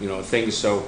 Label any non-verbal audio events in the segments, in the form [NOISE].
you know, things, so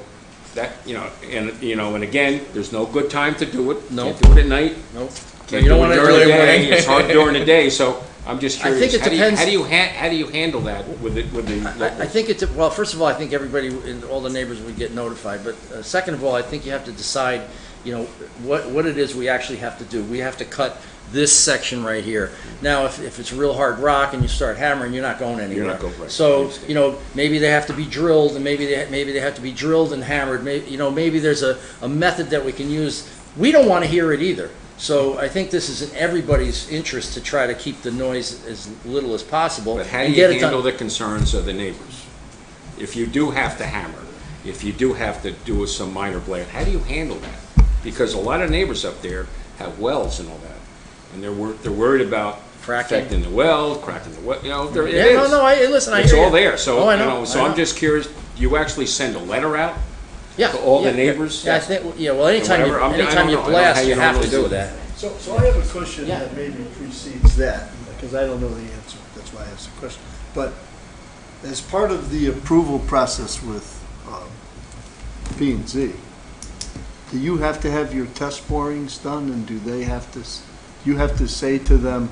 that, you know, and, you know, and again, there's no good time to do it. No. Can't do it at night. Nope. Can't do it during the day. It's hard during the day, so I'm just [LAUGHS] I curious. think it how do you- depends- How do you ha, how do you handle that with the, with the I I local? think it's, well, first of all, I think everybody, and all the neighbors would get notified, but uh, second of all, I think you have to decide, you know, what, what it is we actually have to do. We have to cut this section right here. Now, if, if it's real hard rock and you start hammering, you're not going anywhere. not going- right, I So, understand. you know, maybe they have to be drilled, and maybe they, maybe they have to be drilled and hammered, may, you know, maybe there's a, a method that we can use. We don't want to hear it either. So I think this is in everybody's interest to try to keep the noise as little as possible. But how do and you get it done. handle the concerns of the neighbors? If you do have to hammer, if you do have to do some minor blade, how do you handle that? Because a lot of neighbors up there have wells and all that, and they're wor, they're worried about Fracking. affecting the well, cracking the well, you know, there, it Yeah, is. no, no, I, listen, I It's hear all you. there, so, Oh, I you know, know, I so I'm know. just curious, do you actually send a letter out? Yeah, to all the yeah, yeah. neighbors? Yeah, I think, yeah, well, anytime you, Whatever, I'm- I anytime don't you know, I don't know how blast, you you have to normally do do it. that. So, so I have a question Yeah. that maybe precedes that, because I don't know the answer, that's why I asked the question. But as part of the approval process with um, P and Z, do you have to have your test borings done, and do they have to, s- you have to say to them,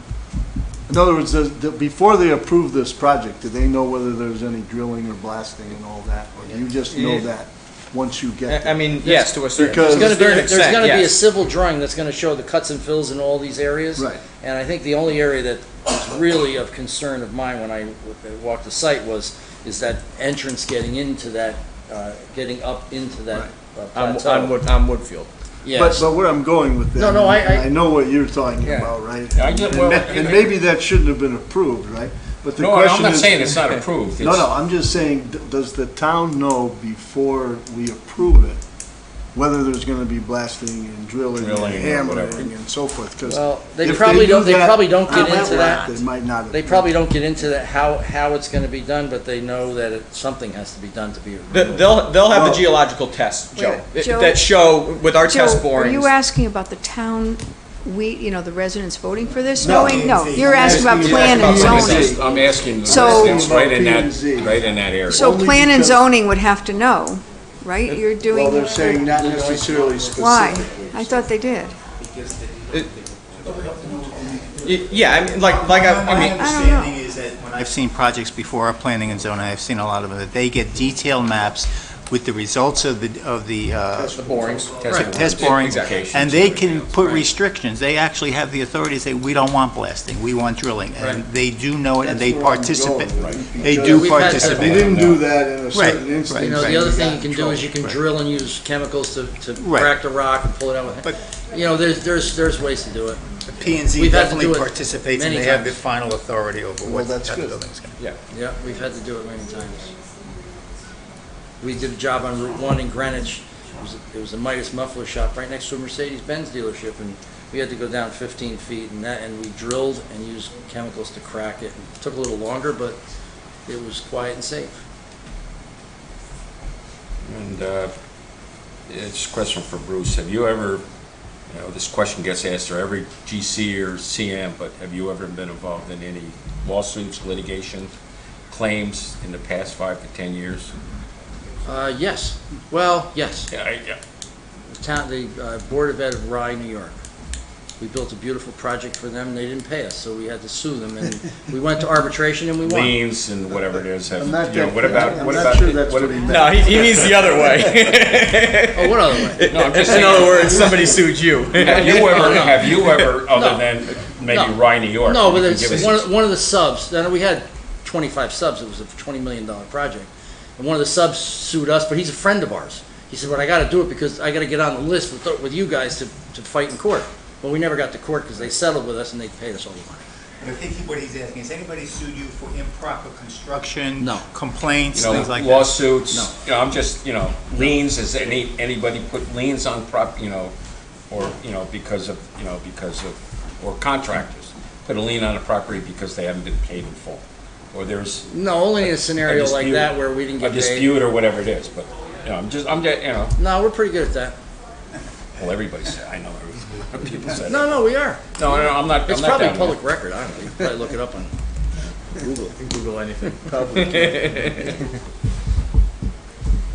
in other words, does- do- before they approve this project, do they know whether there's any drilling or blasting and all that? Or do you just know Yeah. that once you get I I there? mean, yes, to a certain, Because- to There's There's gonna gonna a be, certain there's extent, gonna be a yes. civil drawing that's gonna show the cuts and fills in all these areas. Right. And I think the only area that was really of concern of mine when I w- walked the site was, is that entrance getting into that, uh, getting up into that uh, On, plateau. on Wood, on Woodfield. But, Yes, but where I'm going with that. No, no, I- I- know what you're talking Yeah. about, right? Yeah, I get- And well, that- And I- maybe that shouldn't have been approved, right? But the question is- not approved. [LAUGHS] No, no, I'm just saying, d- does the town know before we approve it, whether there's gonna be blasting and drilling and Drilling or whatever. hammering and so forth? 'Cause Well, they if probably do don't- they that probably don't get on that into route, that. They might not. have they probably don't get into that, how, how it's gonna be done, but they know that it, something has to be done to be The- removed. They'll, they'll have the Well- geological tests, Joe, Wait, that- Joe- that show with our test Joe, are you borings. asking about the town, we, you know, the residents voting for this, No. knowing? No, you're I'm asking about asking plan and about I'm planning. zoning. just- I'm asking, So- it's right in P and Z. that, right in that area. So Only plan and because- zoning would have to know, right? You're Well, they're doing, saying not necessarily specifically. why? I thought they did. Y- Yeah, I mean, like, like, I I My mean, understanding is that when I've seen projects before, our planning and zoning, I've seen a lot of them, that they get detailed maps with the results of the, of the, uh, the borings. Right, test Yeah, borings, exactly. and they can put restrictions. They actually have the authority to say, we don't want blasting, we want drilling. And Right. they do know it, and they That's where I'm participate. going with it, They because do We've had- If participate. you didn't do that in a certain right. instance. You know, Right. the other thing you got in can do trouble. is you can Right. drill and use chemicals to, to Right. crack the rock and pull it out But- with, you know, there's, there's, there's ways to do it. P and Z We've had to do it definitely participates, and many they have the times. final authority over Well, what the that's good. building's going to Yeah. Yeah, we've had to do it many times. We did a job on Route One in Greenwich. It was, it was a Midas muffler shop right next to a Mercedes-Benz dealership, and we had to go down fifteen feet and that, and we drilled and used chemicals to crack it. It Took a little longer, but it was quiet and safe. And uh, it's a question for Bruce. Have you ever, you know, this question gets asked to every GC or CM, but have you ever been involved in any lawsuits, litigation, claims in the past five to 10 years? Uh, yes, well, yes. Yeah, I- yeah. the town, the uh, Board of Ed of Rye, New York. We built a beautiful project for them, they didn't pay us, so we had to sue them, and [LAUGHS] we went to arbitration and we won. liens and whatever it is. Have I'm not you know, that- What about, I'm what not about, sure the- that's what what he about? meant. No, he, he means the other way. Oh, what [LAUGHS] other way? No, I'm just In other saying, words, somebody sued you. have you ever, No. have you ever, other No. than No. maybe Rye, New York? No, you but can it's give us- one, of- one of the subs, then we had twenty-five subs, it was a twenty million dollar project. And one of the subs sued us, but he's a friend of ours. He said, "Well, I gotta do it because I gotta get on the list with, with you guys to, to fight in court." Well, we never got to court because they settled with us and they paid us all the money. But I think what he's asking, has anybody sued you for improper construction? No. Complaints, you know, things like that? No. lawsuits, you know, I'm just, you know, liens, has any, anybody put liens on prop, you know, or, you know, because of, you know, because of, or contractors, put a lien on a property because they haven't been paid in full, or there's No, only in a a scenario like dispute. that where we didn't A get paid. dispute or whatever it is, but, you know, I'm just, I'm, just, you know, No, we're pretty good at that. well, everybody said, I know, everybody- [LAUGHS] people said. it. No, no, we are. No, no, I'm not, I'm It's not probably down there. public record, I don't know, you can probably look it up on Google. Google anything.